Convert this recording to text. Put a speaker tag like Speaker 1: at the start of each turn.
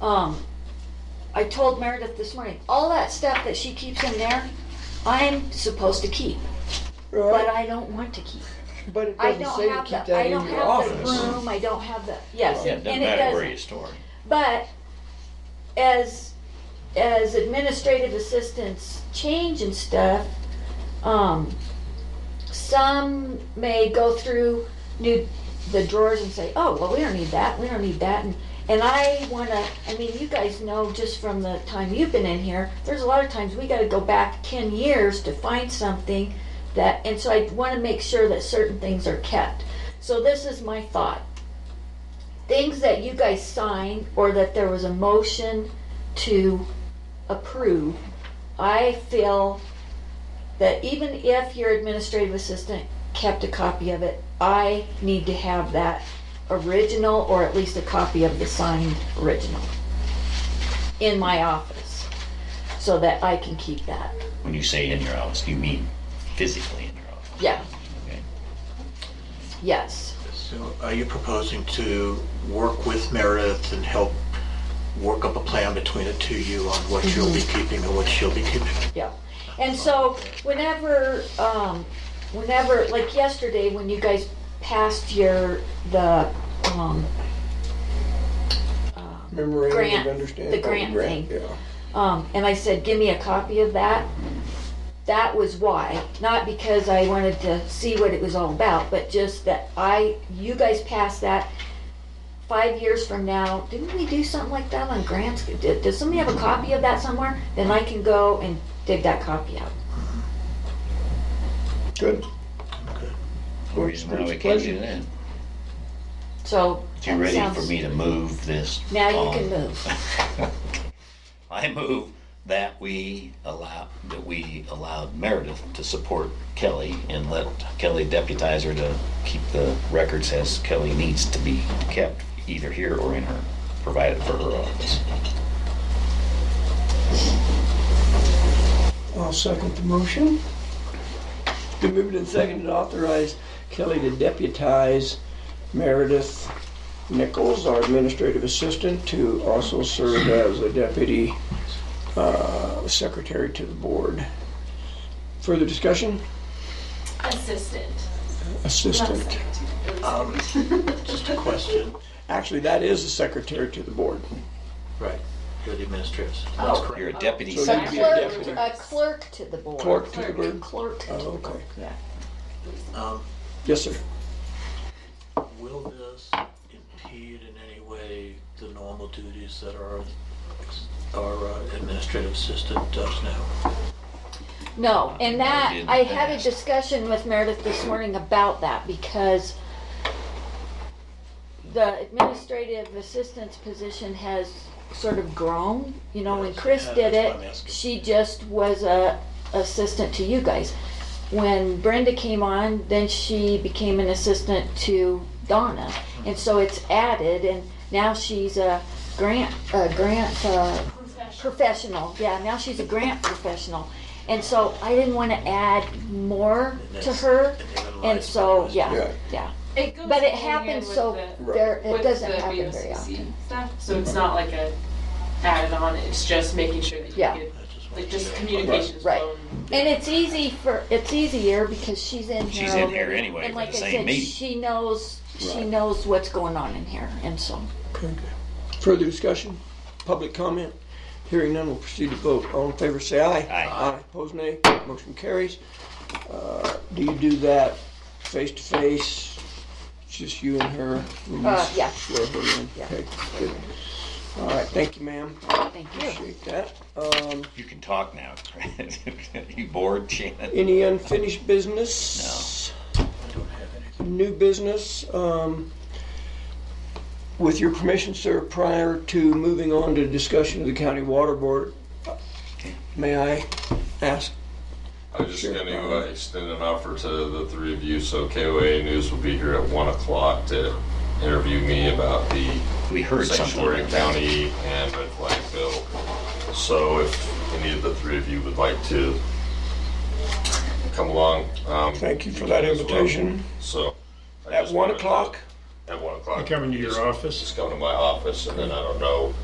Speaker 1: Um, I told Meredith this morning, all that stuff that she keeps in there, I'm supposed to keep, but
Speaker 2: Right,
Speaker 1: I don't want to keep.
Speaker 2: but it
Speaker 1: I
Speaker 2: doesn't
Speaker 1: don't
Speaker 2: say to
Speaker 1: have
Speaker 2: keep
Speaker 1: the, I
Speaker 2: that
Speaker 1: don't
Speaker 2: in your
Speaker 1: have the
Speaker 2: office.
Speaker 1: room, I don't have the, yes,
Speaker 3: Yeah, it
Speaker 1: and
Speaker 3: doesn't
Speaker 1: it
Speaker 3: matter where you
Speaker 1: doesn't.
Speaker 3: store it.
Speaker 1: But as, as administrative assistants change and stuff, um, some may go through new, the drawers and say, oh, well, we don't need that, we don't need that, and, and I wanna, I mean, you guys know just from the time you've been in here, there's a lot of times we gotta go back ten years to find something that, and so I wanna make sure that certain things are kept. So this is my thought things that you guys signed or that there was a motion to approve, I feel that even if your administrative assistant kept a copy of it, I need to have that original or at least a copy of the signed original in my office so that I can keep that.
Speaker 3: When you say in your office, you mean physically in your office.
Speaker 1: Yeah,
Speaker 3: Okay.
Speaker 1: yes.
Speaker 4: So are you proposing to work with Meredith and help work up a plan between the two of you on what you'll be keeping and what she'll be keeping?
Speaker 1: Yeah, and so whenever, um, whenever, like yesterday, when you guys passed your, the, um,
Speaker 2: Memorandum
Speaker 1: Grant,
Speaker 2: of understanding.
Speaker 1: the grant thing.
Speaker 2: Yeah.
Speaker 1: um, and I said, give me a copy of that, that was why, not because I wanted to see what it was all about, but just that I, you guys passed that. Five years from now, didn't we do something like that on grants? Did, does somebody have a copy of that somewhere? Then I can go and dig that copy out.
Speaker 2: Good.
Speaker 3: No reason why we can't do that.
Speaker 1: So.
Speaker 3: If you're ready for
Speaker 1: sounds-
Speaker 3: me to move this.
Speaker 1: Now you
Speaker 3: on-
Speaker 1: can move.
Speaker 3: I move that we allow, that we allowed Meredith to support Kelly and let Kelly deputize her to keep the records as Kelly needs to be kept, either here or in her, provided for her office.
Speaker 2: I'll second the motion. The movement and seconded to authorize Kelly to deputize Meredith Nichols, our administrative assistant, to also serve as a deputy uh, secretary to the board. Further discussion?
Speaker 5: Assistant.
Speaker 2: Assistant.
Speaker 4: Um, Just a question.
Speaker 2: Actually, that is the secretary to the board.
Speaker 4: Right, you're the administrator. That's correct.
Speaker 3: You're a deputy
Speaker 2: So
Speaker 1: A
Speaker 2: you'd be a
Speaker 1: clerk,
Speaker 2: deputy.
Speaker 1: a clerk to the board.
Speaker 2: Clerk to the board?
Speaker 1: Clerk to
Speaker 2: Oh,
Speaker 1: the board,
Speaker 2: okay.
Speaker 1: yeah.
Speaker 4: Um,
Speaker 2: Yes, sir.
Speaker 4: Will this impede in any way the normal duties that our, our uh, administrative assistant does now?
Speaker 1: No, and
Speaker 3: Maybe
Speaker 1: that,
Speaker 3: in the
Speaker 1: I had a
Speaker 3: past.
Speaker 1: discussion with Meredith this morning about that because the administrative assistant's position has sort of grown. You know, when
Speaker 4: Yes,
Speaker 1: Chris
Speaker 4: yeah,
Speaker 1: did
Speaker 4: that's what I'm
Speaker 1: it,
Speaker 4: asking.
Speaker 1: she just was a assistant to you guys. When Brenda came on, then she became an assistant to Donna. And so it's added and now she's a grant, a grant, uh, professional. Yeah, now she's a grant professional. And so I didn't want to add more
Speaker 4: And
Speaker 1: to
Speaker 4: that's-
Speaker 1: her.
Speaker 4: then
Speaker 1: And
Speaker 4: lies
Speaker 1: so,
Speaker 4: because-
Speaker 1: yeah,
Speaker 2: Yeah.
Speaker 1: yeah.
Speaker 5: It goes
Speaker 1: But it
Speaker 5: hand in hand
Speaker 1: happens
Speaker 5: with
Speaker 1: so
Speaker 5: the-
Speaker 1: there, it
Speaker 5: with
Speaker 1: doesn't
Speaker 5: the
Speaker 1: happen very
Speaker 5: VOCC
Speaker 1: often.
Speaker 5: Stuff, so it's not like a added on, it's just making sure that you
Speaker 1: Yeah.
Speaker 5: get,
Speaker 4: I just wanted
Speaker 5: like,
Speaker 4: to
Speaker 5: just
Speaker 4: know.
Speaker 5: communications
Speaker 1: Right.
Speaker 5: flow.
Speaker 1: And it's easy for, it's easier because she's in here.
Speaker 3: She's in here
Speaker 1: already.
Speaker 3: anyway
Speaker 1: And
Speaker 3: for
Speaker 1: like
Speaker 3: the
Speaker 1: I
Speaker 3: same
Speaker 1: said,
Speaker 3: meeting.
Speaker 1: She knows, she
Speaker 2: Right.
Speaker 1: knows what's going on in here and so.
Speaker 2: Further discussion? Public comment? Hearing none, we'll proceed to vote. All in favor, say aye.
Speaker 3: Aye.
Speaker 2: Aye, opposed, nay. Motion carries. Uh, Do you do that face to face? It's Just you and her? Will you
Speaker 1: Uh, yeah.
Speaker 2: swear her in?
Speaker 1: Yeah.
Speaker 2: Okay, good. All right, thank you, ma'am.
Speaker 1: Thank you.
Speaker 2: Appreciate that. Um,
Speaker 3: You can talk now. You bored, Shannon?
Speaker 2: Any unfinished business?
Speaker 4: I don't have anything.
Speaker 2: new business. um, With your permission, sir, prior to moving on to discussion of the county water board, may I ask?
Speaker 6: I'm just
Speaker 2: Sure.
Speaker 6: going to uh, extend an offer to the three of you. So KOA News will be here at one o'clock to interview me about the
Speaker 3: We heard something
Speaker 6: sanctuary
Speaker 3: like that.
Speaker 6: county and red flag bill. So if any of the three of you would like to come along, um,
Speaker 2: Thank you for that
Speaker 6: can as well.
Speaker 2: invitation.
Speaker 6: So I
Speaker 2: At
Speaker 6: just
Speaker 2: one
Speaker 6: wanted to-
Speaker 2: o'clock?
Speaker 6: At one o'clock.
Speaker 7: Coming to your
Speaker 6: Just-
Speaker 7: office?
Speaker 6: Just come to my office, and then I don't know